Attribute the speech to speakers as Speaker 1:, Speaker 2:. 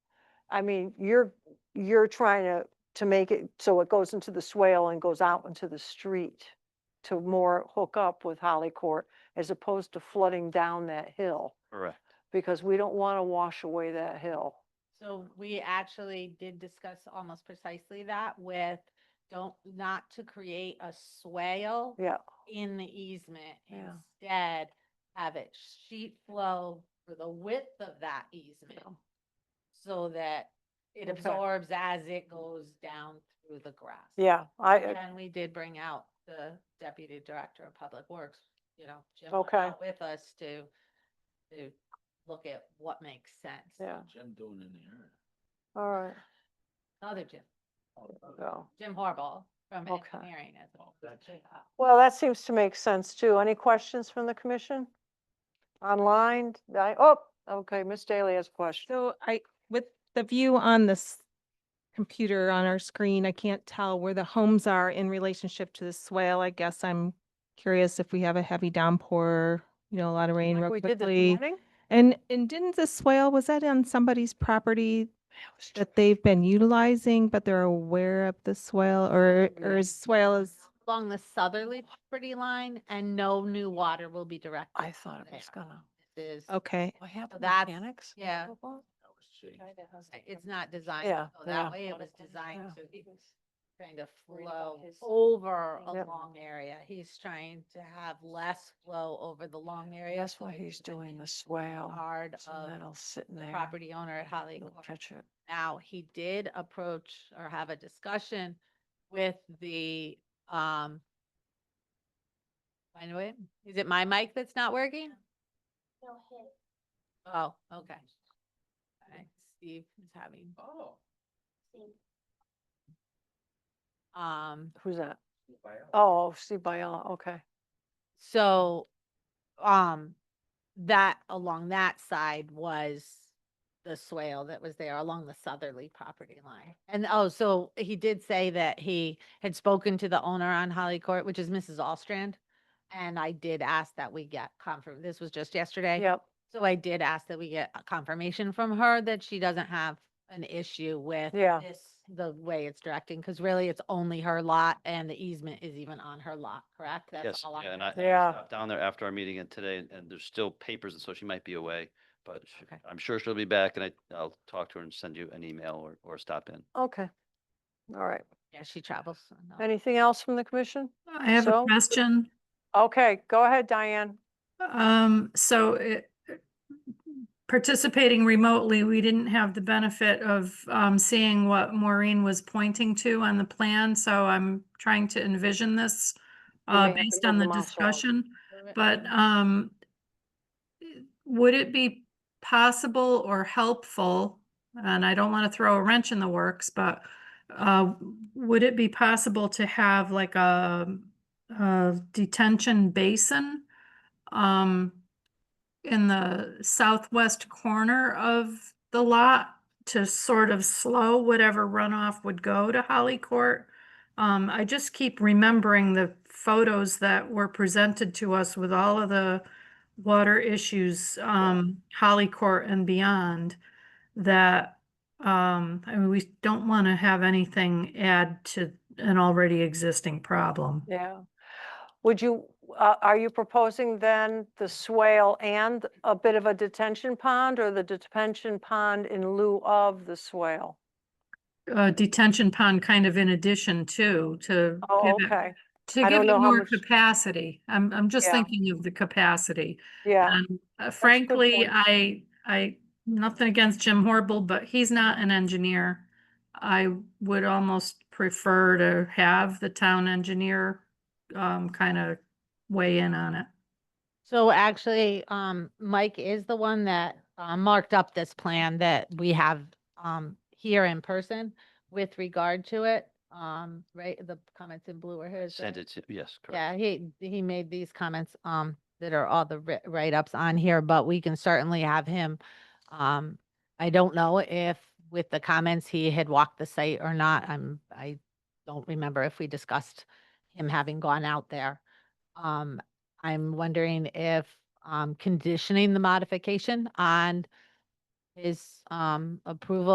Speaker 1: I mean, you're, you're trying to, to make it so it goes into the swale and goes out into the street to more hook up with Holly Court as opposed to flooding down that hill,
Speaker 2: Correct.
Speaker 1: because we don't want to wash away that hill.
Speaker 3: So we actually did discuss almost precisely that with don't, not to create a swale
Speaker 1: Yeah,
Speaker 3: in the easement.
Speaker 1: Yeah.
Speaker 3: Instead, have it sheet flow for the width of that easement so that it
Speaker 1: Okay.
Speaker 3: absorbs as it goes down through the grass.
Speaker 1: yeah, I, uh
Speaker 3: And we did bring out the deputy director of public works, you know, Jim
Speaker 1: Okay.
Speaker 3: went out with us to, to look at what makes sense.
Speaker 1: yeah,
Speaker 2: Jim doing in the
Speaker 1: all right,
Speaker 3: Another Jim.
Speaker 2: Oh,
Speaker 1: so.
Speaker 3: Jim Harbaugh from
Speaker 1: Okay.
Speaker 3: engineering as well.
Speaker 1: Well, that seems to make sense too. Any questions from the commission? Online, I, oh, okay, Miss Daly has a question.
Speaker 4: So I, with the view on this computer on our screen, I can't tell where the homes are in relationship to the swale. I guess I'm curious if we have a heavy downpour, you know, a lot of rain
Speaker 1: Like
Speaker 4: real
Speaker 1: we did this
Speaker 4: quickly.
Speaker 1: morning?
Speaker 4: And, and didn't the swale, was that on somebody's property that they've been utilizing, but they're aware of the swale or, or is swale is?
Speaker 3: Along the southerly property line and no new water will be directed.
Speaker 1: I thought it was
Speaker 3: there.
Speaker 1: gonna,
Speaker 3: This is,
Speaker 4: Okay,
Speaker 1: what happened,
Speaker 3: that's-
Speaker 1: mechanics?
Speaker 3: yeah. it's not designed
Speaker 1: Yeah,
Speaker 3: to go that
Speaker 1: yeah.
Speaker 3: way. It was designed to be kind of
Speaker 5: worried about
Speaker 3: flow
Speaker 5: his
Speaker 3: over a
Speaker 5: thing.
Speaker 1: Yep.
Speaker 3: long area. He's trying to have less flow over the long area.
Speaker 1: That's
Speaker 3: so
Speaker 1: why
Speaker 3: it
Speaker 1: he's
Speaker 3: doesn't
Speaker 1: doing the
Speaker 3: hit
Speaker 1: swale,
Speaker 3: Hard
Speaker 1: so
Speaker 3: of
Speaker 1: that'll sit in
Speaker 3: the
Speaker 1: there.
Speaker 3: property owner at Holly
Speaker 1: You'll
Speaker 3: Court.
Speaker 1: catch it.
Speaker 3: Now, he did approach or have a discussion with the, um, by the way, is it my mic that's not working? Oh, okay. All right, Steve is having,
Speaker 2: Oh.
Speaker 3: um,
Speaker 1: Who's that? Oh, Steve Biella, okay.
Speaker 3: so, um, that, along that side was the swale that was there along the southerly property line. And, oh, so he did say that he had spoken to the owner on Holly Court, which is Mrs. Allstrand. And I did ask that we get confirm, this was just yesterday.
Speaker 1: Yep,
Speaker 3: So I did ask that we get a confirmation from her that she doesn't have an issue with
Speaker 1: Yeah.
Speaker 3: this, the way it's directing, because really it's only her lot and the easement is even on her lot, correct? That's
Speaker 2: Yes,
Speaker 3: all on
Speaker 2: yeah, and
Speaker 3: her.
Speaker 2: I I
Speaker 1: Yeah.
Speaker 2: stopped down there after our meeting and today, and- and there's still papers, and so she might be away. But she-
Speaker 3: Okay.
Speaker 2: I'm sure she'll be back, and I, I'll talk to her and send you an email or, or stop in.
Speaker 1: okay. All right.
Speaker 3: Yeah, she travels. so no.
Speaker 1: Anything else from the commission?
Speaker 5: I have
Speaker 1: So-
Speaker 5: a question.
Speaker 1: Okay, go ahead, Diane.
Speaker 5: Um, so it, participating remotely, we didn't have the benefit of, um, seeing what Maureen was pointing to on the plan, so I'm trying to envision this,
Speaker 1: You may
Speaker 5: uh,
Speaker 1: have to
Speaker 5: based
Speaker 1: move
Speaker 5: on
Speaker 1: the
Speaker 5: the
Speaker 1: mouse around.
Speaker 5: discussion.
Speaker 3: Move it.
Speaker 5: But um, would it be possible or helpful, and I don't want to throw a wrench in the works, but uh, would it be possible to have like a a detention basin um, in the southwest corner of the lot to sort of slow whatever runoff would go to Holly Court? Um, I just keep remembering the photos that were presented to us with all of the water issues, um, Holly Court and beyond. That, um, I mean, we don't want to have anything add to an already existing problem.
Speaker 1: Yeah. Would you, uh, are you proposing then the swale and a bit of a detention pond or the detention pond in lieu of the swale?
Speaker 5: Uh, detention pond kind of in addition to, to
Speaker 1: Oh,
Speaker 5: give it-
Speaker 1: okay.
Speaker 5: to
Speaker 1: I
Speaker 5: give
Speaker 1: don't
Speaker 5: it
Speaker 1: know how
Speaker 5: more
Speaker 1: much-
Speaker 5: capacity. I'm, I'm just
Speaker 1: Yeah.
Speaker 5: thinking of the capacity.
Speaker 1: Yeah,
Speaker 5: And uh, frankly,
Speaker 1: point.
Speaker 5: I, I, nothing against Jim Horrible, but he's not an engineer. I would almost prefer to have the town engineer, um, kind of weigh in on it.
Speaker 3: So actually, um, Mike is the one that, uh, marked up this plan that we have, um, here in person with regard to it. Um, right, the comments in blue are his. right?
Speaker 2: Send it to, yes, correct.
Speaker 3: Yeah, he, he made these comments, um, that are all the wri- write-ups on here, but we can certainly have him. Um, I don't know if with the comments he had walked the site or not. I'm, I don't remember if we discussed him having gone out there. Um, I'm wondering if, um, conditioning the modification on his, um, approval